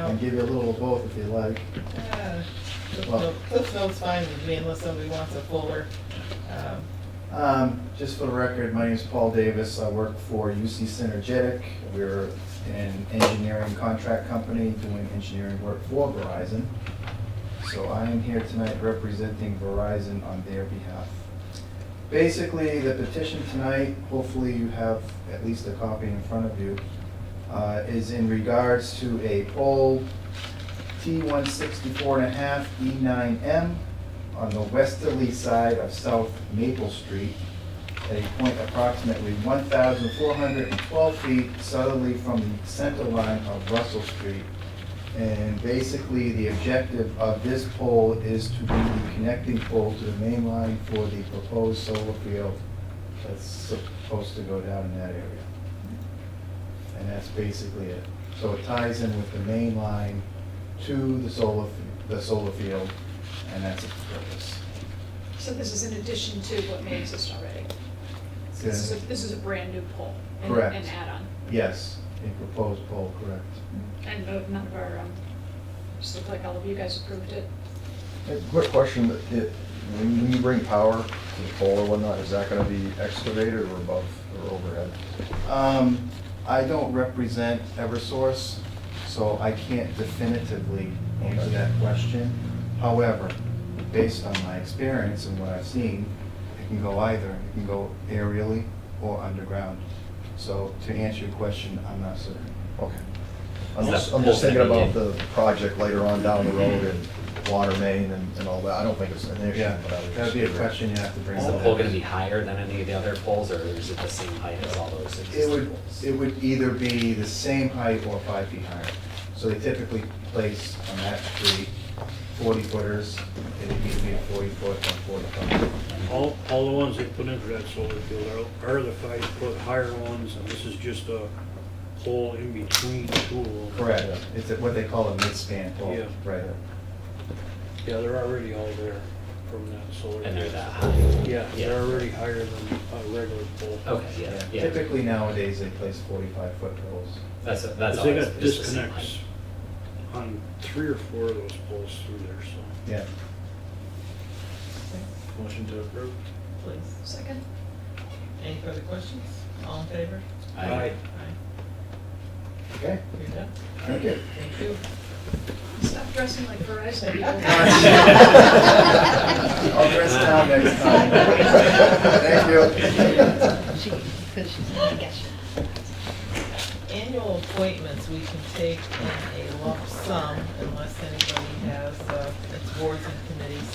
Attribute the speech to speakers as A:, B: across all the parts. A: I'll give you a little of both if you like.
B: Uh, Cliff
A: Well-
B: Note- Cliff Note's fine with me unless somebody wants a fuller, um,
A: Um, Just for the record, my name is Paul Davis. I work for UC Synergetic. We're an engineering contract company doing engineering work for Verizon. So I am here tonight representing Verizon on their behalf. Basically, the petition tonight, hopefully you have at least a copy in front of you, uh, is in regards to a pole T one sixty-four and a half E nine M on the westerly side of South Maple Street at a point approximately one thousand four hundred and twelve feet southerly from the center line of Russell Street. And basically, the objective of this pole is to be the connecting pole to the main line for the proposed solar field that's supposed to go down in that area. And that's basically it. So it ties in with the main line to the solar, f- the solar field, and that's its purpose.
C: So this is in addition to what may exist already? So This is,
A: Yeah.
C: a- this is a brand-new pole? and-
A: Correct.
C: An add-on?
A: Yes, a proposed pole, correct.
C: And no- none of our, um, just look like all of you guys approved it?
D: Hey, Quick question, it, when you bring power to the pole or whatnot, is that gonna be excavated or above or overhead?
A: Um, I don't represent Eversource, so I can't definitively answer that question. However, based on my experience and what I've seen, it can go either, it can go aerially or underground. So to answer your question, I'm not certain.
D: Okay. I'm just, I'm just thinking about the project later on down the road and water main and, and all that. I don't think it's an issue,
A: Yeah,
D: but I was just.
A: that'd be a question you have to bring
E: Is
A: up.
E: the pole gonna be higher than any of the other poles, or is it the same height as all those
A: It
E: existing
A: would,
E: poles?
A: it would either be the same height or five feet higher. So they typically place on that street forty footers, it'd either be a forty foot or forty five.
F: All, all the ones they put in for that solar field are, are the five foot higher ones, and this is just a hole in between two of them.
A: Correct, it's what they call a midspan pole,
F: Yeah.
A: right?
F: Yeah, they're already all there from that solar.
E: And they're
F: field.
E: that high?
F: Yeah,
E: Yeah.
F: they're already higher than a regular pole.
E: Okay, yeah, yeah.
A: Typically nowadays, they place forty-five foot poles.
E: That's, that's
F: Because they
E: always
F: got
E: just the same height.
F: disconnects on three or four of those poles through there, so.
A: Yeah.
G: Motion to approve?
B: please.
C: Second?
B: Any further questions? All in favor?
E: I-
B: Aye.
A: Okay,
B: You're done?
A: thank you.
B: Thank you.
C: Stop dressing like Verizon people.
A: I'll dress down next time. Thank you.
H: She, because she's an guest.
B: Annual appointments, we can take in a lump sum unless anybody has, uh, it's boards and committees,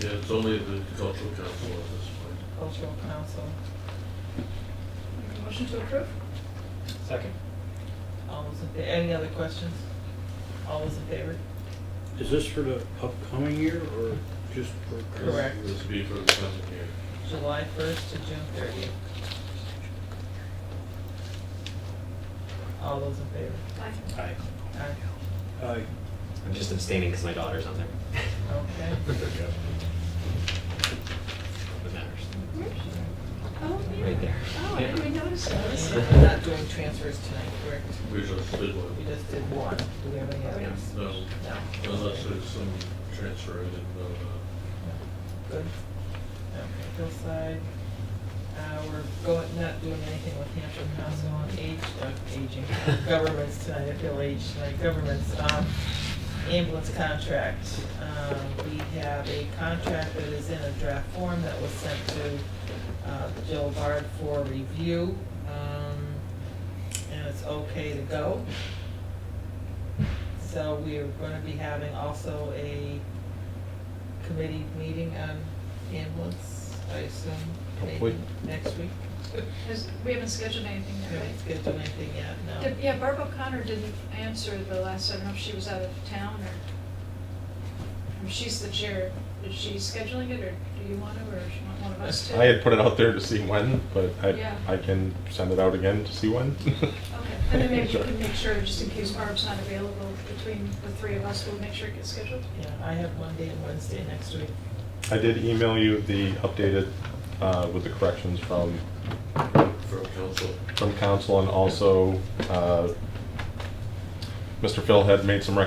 G: Yeah, it's only the cultural council at this point.
B: cultural council.
C: Make a Motion to approve?
E: Second.
B: All those in, fa- any other questions? All those in favor?
F: Is this for the upcoming year or just for? current
B: Correct.
F: year?
G: This would be for the present year.
B: July first to June thirtieth. All those in favor?
C: Aye.
E: Aye.
B: Aye.
F: Aye.
E: I'm just abstaining because my daughter's on there.
B: Okay.
E: It matters.
C: Oh, yeah.
E: Right there.
C: Oh, I didn't even notice that.
B: We're not doing transfers tonight, correct?
G: We just did one.
B: We just did one. Do we have any others?
G: No,
B: No.
G: unless there's some transfer in, uh,
B: Good. Okay, Hillside. Uh, we're going, not doing anything with Hampshire Council on Age, uh, aging, governments tonight, I feel aged tonight, governments, um, ambulance contract. Um, we have a contract that is in a draft form that was sent to, uh, Jill Bard for review. Um, and it's okay to go. So we're gonna be having also a committee meeting on ambulance, I assume, maybe
D: Hopefully.
B: next week.
C: Has- We haven't scheduled anything
B: We
C: there,
B: haven't
C: right?
B: scheduled anything yet, no.
C: Did- Yeah, Barb O'Connor didn't answer the last, I don't know if she was out of town or, I mean, she's the chair. Is she scheduling it, or do you want to, or she want one of us to?
I: I had put it out there to see when, but
C: Yeah.
I: I, I can send it out again to see when.
C: Okay, and then maybe you
I: Sure.
C: can make sure, just in case Barb's not available, between the three of us, we'll make sure it gets scheduled.
B: Yeah, I have Monday and Wednesday next week.
I: I did email you the updated, uh, with the corrections from,
G: from council.
I: from council and also, uh, Mr. Phil had made some recommendations